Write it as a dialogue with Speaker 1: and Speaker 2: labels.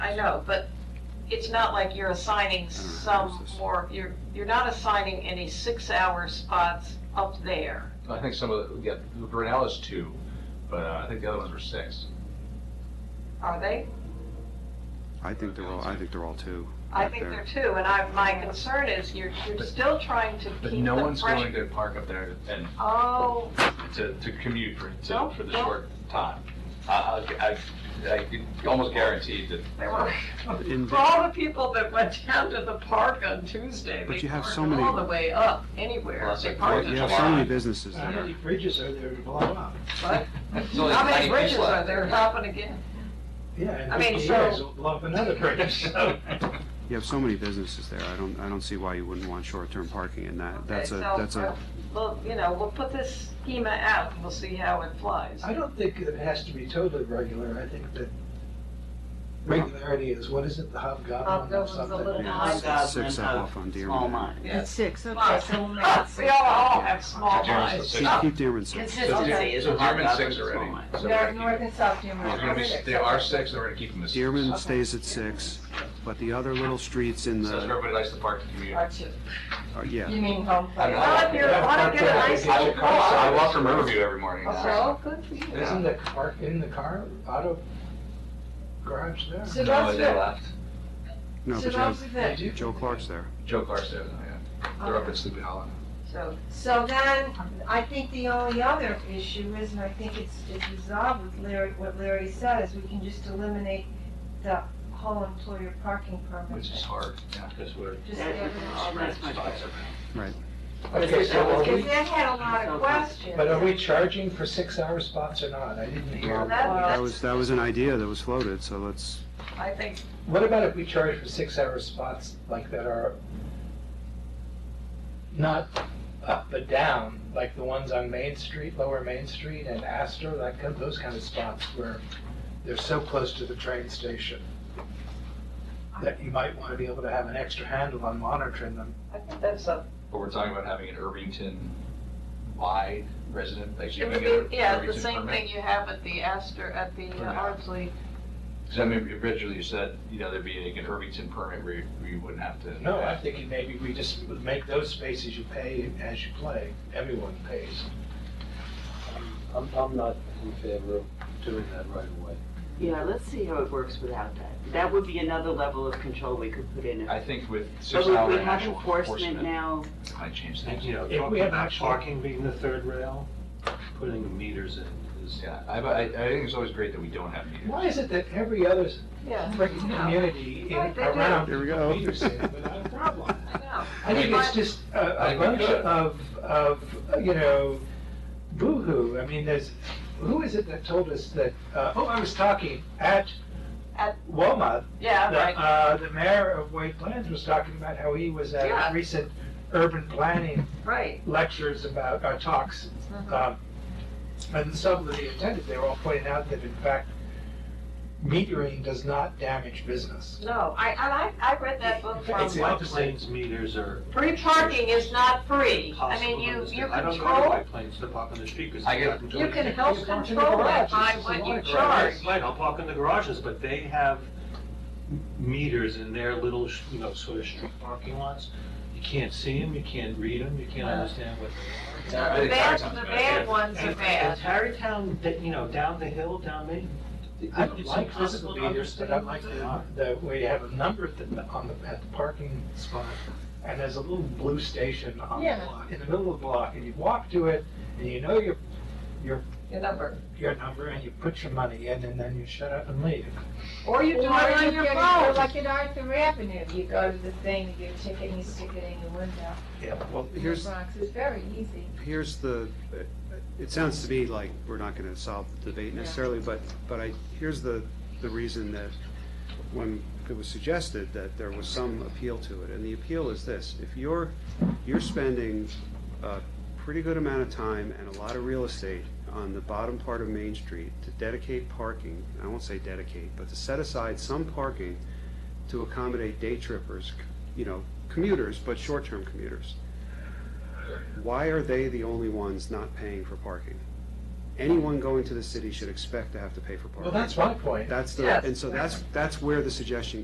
Speaker 1: I know, but it's not like you're assigning some more, you're, you're not assigning any six-hour spots up there.
Speaker 2: I think some of, the yeah, Brunel is two, but uh, I think the other ones were six.
Speaker 1: Are they?
Speaker 3: I think they're all, I think they're all two.
Speaker 1: I
Speaker 3: back
Speaker 1: think
Speaker 3: there.
Speaker 1: they're two, and I, my concern is you're, you're still trying to keep the
Speaker 2: But no one's
Speaker 1: fresh-
Speaker 2: going to park up there and
Speaker 1: Oh,
Speaker 2: to, to commute for,
Speaker 1: No,
Speaker 2: to, for the
Speaker 1: no.
Speaker 2: short time. I, I, I- I can almost guarantee that.
Speaker 1: they were,
Speaker 3: In
Speaker 1: for all the people that went down to the park on Tuesday,
Speaker 3: But
Speaker 1: they
Speaker 3: you have
Speaker 1: parked
Speaker 3: so many-
Speaker 1: all the way up, anywhere.
Speaker 2: Plus,
Speaker 1: They
Speaker 2: like,
Speaker 1: parked
Speaker 3: You
Speaker 1: at
Speaker 3: have
Speaker 1: the
Speaker 3: so many
Speaker 1: lot.
Speaker 3: businesses
Speaker 4: How
Speaker 3: there.
Speaker 4: many bridges are there to blow up?
Speaker 1: But
Speaker 2: It's only
Speaker 1: How
Speaker 2: a tiny
Speaker 1: many
Speaker 2: piece
Speaker 1: bridges are
Speaker 2: left.
Speaker 1: there? Happen again.
Speaker 4: Yeah, in
Speaker 1: I mean,
Speaker 4: 50
Speaker 1: so-
Speaker 4: years, it'll blow up another bridge, so.
Speaker 3: You have so many businesses there. I don't, I don't see why you wouldn't want short-term parking in that. That's a,
Speaker 1: Okay, so,
Speaker 3: that's a,
Speaker 1: uh, Well, you know, we'll put this schema out, and we'll see how it flies.
Speaker 4: I don't think that it has to be totally regular, I think that regularity is, what is it, the hobgoblin or
Speaker 1: Hobgoblin's a
Speaker 4: something?
Speaker 1: little-
Speaker 3: yeah, it's- it's six
Speaker 5: Hobgoblin
Speaker 3: up
Speaker 5: of
Speaker 3: off on
Speaker 5: small
Speaker 3: Dearman.
Speaker 5: mine.
Speaker 1: Yeah.
Speaker 6: It's six, okay,
Speaker 1: Fine.
Speaker 6: so we'll make it
Speaker 1: We
Speaker 6: six.
Speaker 1: all, all have small
Speaker 2: Dearman's the
Speaker 1: eyes.
Speaker 2: sixth.
Speaker 3: Keep- Keep Dearman six.
Speaker 2: So
Speaker 1: Okay.
Speaker 5: Consistency is
Speaker 2: so
Speaker 5: what
Speaker 2: Dearman's
Speaker 5: Hobgoblin
Speaker 2: six
Speaker 5: is small
Speaker 2: already.
Speaker 5: mine.
Speaker 2: So we're
Speaker 6: North
Speaker 2: gonna
Speaker 6: north and south Dearborn.
Speaker 2: keep- we're gonna be- They are six, and we're gonna keep them as. six.
Speaker 3: Dearman stays at six, but the other little streets in
Speaker 2: So
Speaker 3: the,
Speaker 2: everybody likes to park and commute.
Speaker 6: Are two.
Speaker 3: are- yeah.
Speaker 6: You mean home
Speaker 2: I don't know.
Speaker 6: plate?
Speaker 1: Well, if you want to get a nice
Speaker 2: I
Speaker 1: little
Speaker 2: walk- I
Speaker 1: car,
Speaker 2: walk from Riverview every morning.
Speaker 1: so good for you.
Speaker 4: Isn't the car, in the car, auto garage there?
Speaker 6: So
Speaker 2: No,
Speaker 6: that's
Speaker 2: they
Speaker 6: the,
Speaker 2: left.
Speaker 3: No,
Speaker 6: so
Speaker 3: but you
Speaker 6: that's
Speaker 3: have
Speaker 6: the
Speaker 4: They
Speaker 6: thing.
Speaker 4: do?
Speaker 3: Joe Clark's there.
Speaker 2: Joe Clarkson, yeah. They're up at Sleepy Hollow.
Speaker 1: So,
Speaker 6: So then, I think the only other issue is, and I think it's, it's resolved with Larry, what Larry said, is we can just eliminate the whole employer parking permit.
Speaker 2: Which is
Speaker 6: thing.
Speaker 2: hard, yeah, because we're.
Speaker 6: Just
Speaker 5: That-
Speaker 6: get rid of all that.
Speaker 5: that's much better.
Speaker 4: Okay, so are
Speaker 6: Because
Speaker 4: we,
Speaker 6: that had a lot of questions.
Speaker 4: but are we charging for six-hour spots or not? I didn't
Speaker 1: well,
Speaker 4: hear.
Speaker 1: that,
Speaker 3: That
Speaker 1: that's,
Speaker 3: was, that was an idea that was floated, so let's,
Speaker 1: I think,
Speaker 4: What about if we charge for six-hour spots like that are not up but down, like the ones on Main Street, Lower Main Street and Astor, that, kind- those kind of spots where they're so close to the train station that you might want to be able to have an extra handle on monitoring them.
Speaker 1: I think that's a,
Speaker 2: But we're talking about having an Irvington wide resident, like
Speaker 1: it
Speaker 2: you can
Speaker 1: would
Speaker 2: get an
Speaker 1: be, yeah, the
Speaker 2: Irvington
Speaker 1: same
Speaker 2: permit.
Speaker 1: thing you have at the Astor, at the
Speaker 2: Permit.
Speaker 1: uh, Ardsley.
Speaker 2: Because I mean, originally you said, you know, there'd be like an Irvington permit where you, where you wouldn't have to.
Speaker 4: No, I'm thinking maybe we just would make those spaces you pay as you play, everyone pays.
Speaker 7: I'm, I'm not in favor of doing that right away.
Speaker 5: Yeah, let's see how it works without that. That would be another level of control we could put in.
Speaker 2: I
Speaker 5: it.
Speaker 2: think with six
Speaker 5: But we-
Speaker 2: hour
Speaker 5: we have
Speaker 2: actual
Speaker 5: enforcement
Speaker 2: enforcement,
Speaker 5: now,
Speaker 2: it might change
Speaker 7: And,
Speaker 2: things.
Speaker 7: you know,
Speaker 4: If we
Speaker 7: talking
Speaker 4: have
Speaker 7: about
Speaker 4: actual-
Speaker 7: parking being the third rail, putting meters in is.
Speaker 2: Yeah, I, I, I think it's always great that we don't have meters.
Speaker 4: Why is it that every other
Speaker 1: Yeah,
Speaker 4: freaking community in-
Speaker 1: Right, they do.
Speaker 4: around
Speaker 3: Here we go.
Speaker 4: meters it without a problem?
Speaker 1: I know.
Speaker 4: I think it's
Speaker 1: But-
Speaker 4: just a,
Speaker 2: I
Speaker 4: a
Speaker 2: think
Speaker 4: bunch
Speaker 2: we could.
Speaker 4: of, of, you know, boo-hoo. I mean, there's, who is it that told us that, uh, oh, I was talking at
Speaker 1: At-
Speaker 4: Walmart. The,
Speaker 1: Yeah, right,
Speaker 4: uh, the mayor of White Plains was talking about how he was at
Speaker 1: Yeah.
Speaker 4: a recent urban planning
Speaker 1: right.
Speaker 4: lectures about, uh, talks.
Speaker 1: Mhm.
Speaker 4: um, And some that he attended, they were all pointing out that in fact, metering does not damage business.
Speaker 1: No, I, and I, I read that book from.
Speaker 4: It's the
Speaker 7: White
Speaker 4: opposite.
Speaker 7: Plains meters are
Speaker 1: Free parking is not free. I
Speaker 7: possible.
Speaker 1: mean, you,
Speaker 7: on the
Speaker 1: you
Speaker 7: street. I don't go to
Speaker 1: control,
Speaker 7: White Plains to park on the street because.
Speaker 2: I get-
Speaker 1: you can
Speaker 4: You
Speaker 1: help
Speaker 4: park in the
Speaker 1: control it
Speaker 4: garages,
Speaker 1: by
Speaker 4: it's a
Speaker 1: what
Speaker 4: lot
Speaker 1: you
Speaker 4: of garages.
Speaker 1: charge.
Speaker 7: Right, I'll park in the garages, but they have meters in their little, sh- you know, sort of street parking lots. You can't see them, you can't read them, you can't understand what they are.
Speaker 2: I
Speaker 1: The
Speaker 2: think
Speaker 1: bad,
Speaker 2: Tarrytown's
Speaker 1: the
Speaker 2: bad.
Speaker 1: bad ones are
Speaker 7: And
Speaker 1: bad.
Speaker 7: and Tarrytown, that, you know, down the hill, down Main.
Speaker 4: I don't
Speaker 7: it's
Speaker 4: like
Speaker 7: impossible
Speaker 4: physical
Speaker 7: to
Speaker 4: meters, but I
Speaker 7: understand
Speaker 4: like
Speaker 7: what they are.
Speaker 4: the, the, where you have a number at the, on the, at the parking spot, and there's a little blue station on the
Speaker 6: Yeah.
Speaker 4: block, in the middle of the block, and you walk to it, and you know your,
Speaker 1: Your number.
Speaker 4: your number, and you put your money in, and then you shut up and leave.
Speaker 1: Or you do it
Speaker 6: Or you
Speaker 1: on your
Speaker 6: could-
Speaker 1: phone.
Speaker 6: Like at Arthur Avenue, you go to the thing, you get a ticket, and you stick it in your window.
Speaker 3: well,
Speaker 6: in the
Speaker 3: here's,
Speaker 6: Bronx. It's very easy.
Speaker 3: here's the, it sounds to me like we're not gonna solve the debate necessarily, but, but I, here's the, the reason that when it was suggested that there was some appeal to it, and the appeal is this, if you're, you're spending a pretty good amount of time and a lot of real estate on the bottom part of Main Street to dedicate parking, I won't say dedicate, but to set aside some parking to accommodate day trippers, you know, commuters, but short-term commuters why are they the only ones not paying for parking? anyone going to the city should expect to have to pay for parking.
Speaker 4: Well, that's my point.
Speaker 3: That's the,
Speaker 1: Yes.
Speaker 3: and so that's, that's where the suggestion